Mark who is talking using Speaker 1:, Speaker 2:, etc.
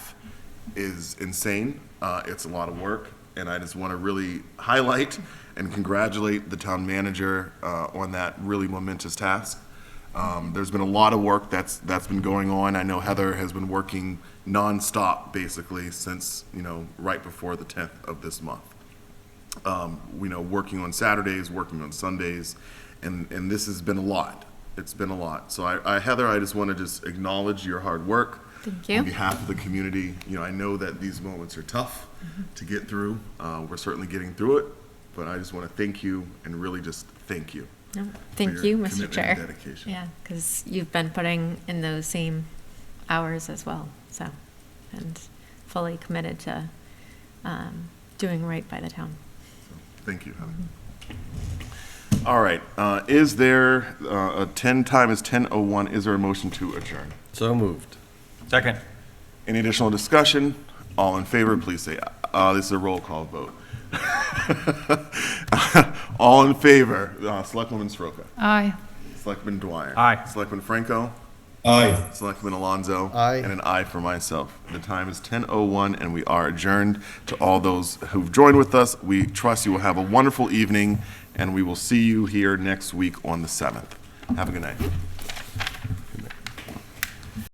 Speaker 1: is insane. Uh, it's a lot of work, and I just want to really highlight and congratulate the town manager uh, on that really momentous task. Um, there's been a lot of work that's that's been going on. I know Heather has been working nonstop basically since you know right before the 10th of this month um, you know, working on Saturdays, working on Sundays, and, and this has been a lot. It's been a lot. So I, I Heather, I just want to just acknowledge your hard work.
Speaker 2: Thank you.
Speaker 1: On behalf of the community, you know, I know that these moments are tough
Speaker 2: Mm-hmm.
Speaker 1: to get through. Uh, we're certainly getting through it, but I just want to thank you and really just thank you.
Speaker 2: No,
Speaker 1: your
Speaker 2: Thank you, Mr.
Speaker 1: commitment and
Speaker 2: Chair.
Speaker 1: dedication.
Speaker 2: Yeah, because you've been putting in those same hours as well, so, and fully committed to um, doing right by the town.
Speaker 1: Thank you, Heather.
Speaker 2: Mm-hmm.
Speaker 1: All right, uh, is there, uh, a ten time is ten oh one, is there a motion to adjourn?
Speaker 3: So moved.
Speaker 4: Second.
Speaker 1: Any additional discussion? All in favor, please say, aye. uh, this is a roll call vote. All in favor, uh, Selectwoman Soroka,
Speaker 5: Aye.
Speaker 1: Selectman Dwyer.
Speaker 4: Aye.
Speaker 1: Selectman Franco,
Speaker 3: Aye.
Speaker 1: Selectman Alonso.
Speaker 3: Aye.
Speaker 1: And an aye for myself. The time is ten oh one and we are adjourned. To all those who've joined with us, we trust you will have a wonderful evening and we will see you here next week on the seventh. Have a good night.